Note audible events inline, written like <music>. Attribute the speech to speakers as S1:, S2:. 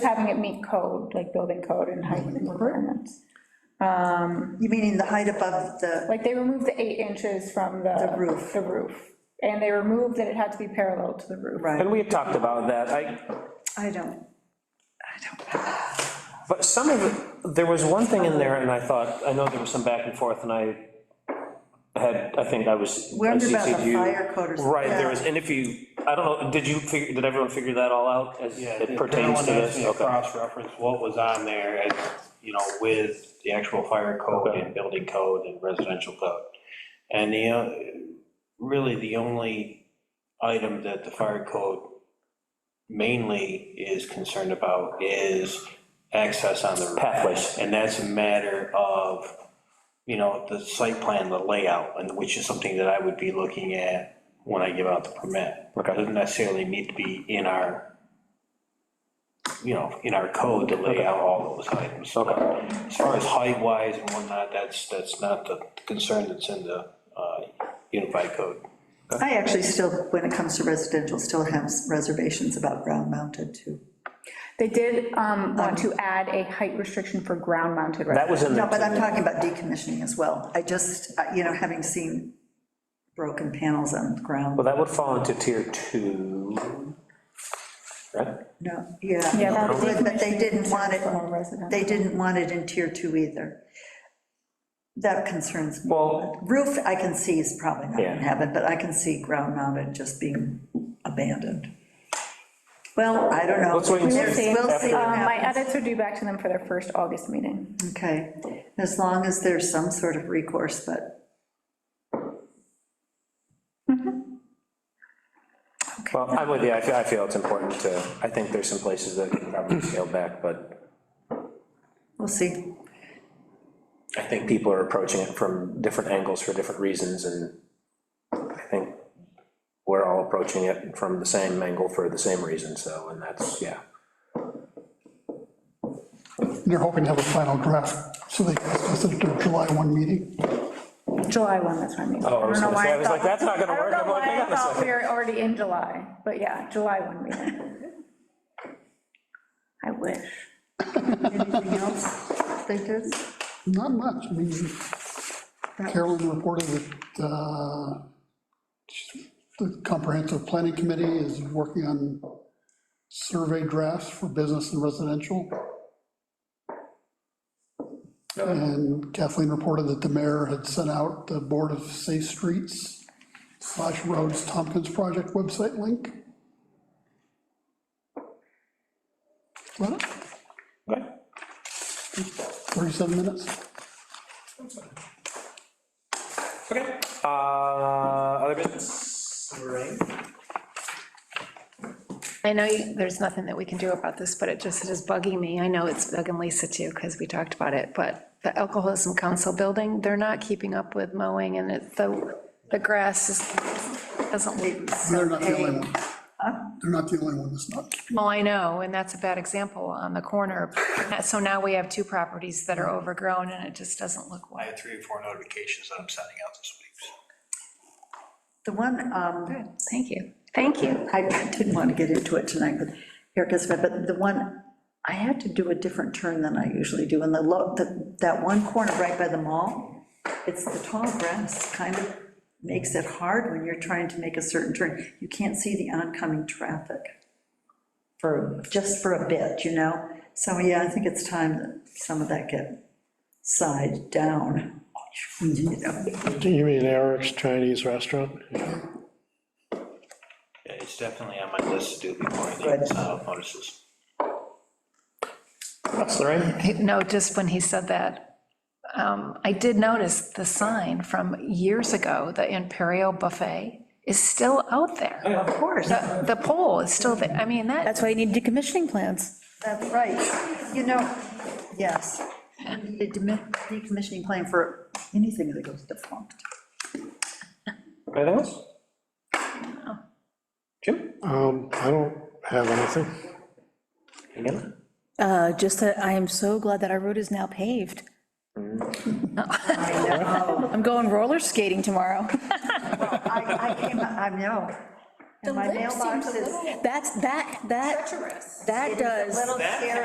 S1: having it meet code, like building code and height
S2: Mm-hmm.
S1: requirements.
S2: You meaning the height above the,
S1: Like, they removed the eight inches from the.
S2: The roof.
S1: The roof, and they removed that it had to be parallel to the roof.
S2: right,
S3: And we had talked about that, I,
S2: I don't,
S3: but some of it, there was one thing in there, and I thought, I know there was some back and forth, and I had, I think I was.
S2: We're under about the
S3: I CC'd you.
S2: fire code or something.
S3: Right, there
S2: Yeah.
S3: was, and if you, I don't know, did you figure, did everyone figure that all out as
S4: Yeah,
S3: it pertains to
S4: everyone asked
S3: this?
S4: me
S3: Okay.
S4: Cross-reference what was on there, as, you know, with the actual fire code
S3: Okay.
S4: and building code and residential code. And the, uh, really, the only item that the fire code mainly is concerned about is access on the roof.
S3: Pathways.
S4: And that's a matter of, you know, the site plan, the layout, and which is something that I would be looking at when I give out the permit.
S3: Okay.
S4: Doesn't necessarily need to be in our, you know, in our code to lay out all those items.
S3: Okay.
S4: As far as height-wise and whatnot, that's, that's not the concern that's in the uh, unified code.
S2: I actually still, when it comes to residential, still have reservations about ground mounted too.
S1: They did um, want to add a height restriction for ground-mounted
S3: That was in
S2: No,
S3: there.
S2: but I'm talking about decommissioning as well. I just, uh, you know, having seen broken panels on the
S3: Well,
S2: ground,
S3: that would fall into tier two, right?
S2: no, yeah.
S1: Yeah,
S2: it would, But they didn't want it,
S1: From a resident.
S2: they didn't want it in tier two either. That concerns me.
S3: Well,
S2: Roof, I can see is probably not
S3: Yeah.
S2: gonna happen, but I can see ground mounted just being abandoned. Well, I don't know.
S3: Let's wait and
S2: There's-
S1: see.
S2: We'll see what
S1: Um, My
S2: happens.
S1: edits are due back to them for their first August meeting.
S2: Okay, as long as there's some sort of recourse, but
S3: well, I'm with you, I feel, I feel it's important to, I think there's some places that can probably scale back, but
S2: we'll see.
S3: I think people are approaching it from different angles for different reasons, and I think we're all approaching it from the same angle for the same reason, so, and that's, yeah.
S5: They're hoping to have a final draft, so they can discuss it at their July 1 meeting.
S1: July 1, that's what I mean.
S3: Oh, I was
S1: don't know
S3: gonna
S1: why
S3: say, I was
S1: thought-
S3: like, that's not gonna work.
S1: I don't
S3: I'm
S1: know
S3: like,
S1: why
S3: hang
S1: I
S3: on a
S1: thought we
S3: second.
S1: were already in July, but yeah, July 1 meeting. I wish.
S2: <laughs> Anything else they did?
S5: Not much, I mean, Carolyn reported that uh, the comprehensive planning committee is working on survey drafts for business and residential. And Kathleen reported that the mayor had sent out the Board of Safe Streets slash roads Tompkins Project website link. What,
S3: Okay.
S5: 37 minutes?
S3: Okay, uh, other business? Lorraine?
S6: I know you- there's nothing that we can do about this, but it just is bugging me. I know it's bugging Lisa too, because we talked about it, but the Alcoholism Council building, they're not keeping up with mowing and it, the, the grass is, doesn't look.
S5: They're not the only one. They're not the only one that's not.
S6: Well, I know, and that's a bad example on the corner. So now we have two properties that are overgrown and it just doesn't look
S4: I
S6: well.
S4: have three or four notifications that I'm sending out this
S2: The
S4: week, so.
S2: one, um,
S6: Good, Thank you. Thank you.
S2: I didn't want to get into it tonight with Erica's, but the one, I had to do a different turn than I usually do, and the low, the- that one corner right by the mall, it's the tall grass kind of makes it hard when you're trying to make a certain turn. You can't see the oncoming traffic for, just for a bit, you know? So, yeah, I think it's time that some of that get side down, <laughs> you know?
S7: Do you mean Eric's Chinese restaurant?
S4: Yeah, It's definitely on my list to do before I leave, so notices.
S3: That's Lorraine.
S6: <laughs> No, just when he said that, um, I did notice the sign from years ago, the Imperial Buffet is still out there.
S2: Of course.
S6: The the pole is still there. I mean, that,
S8: That's why you need decommissioning plans.
S2: That's right. You know, yes, we need a demi- decommissioning plan for anything that goes defunct.
S3: Anything else? Jim?
S7: Um, I don't have anything.
S3: Again?
S8: Uh, Just that I am so glad that our road is now paved. <laughs> I'm going roller skating tomorrow.
S2: I, I came, I know. And my mailbox is
S8: That's, that, that, that
S2: a
S8: does.
S2: little scary.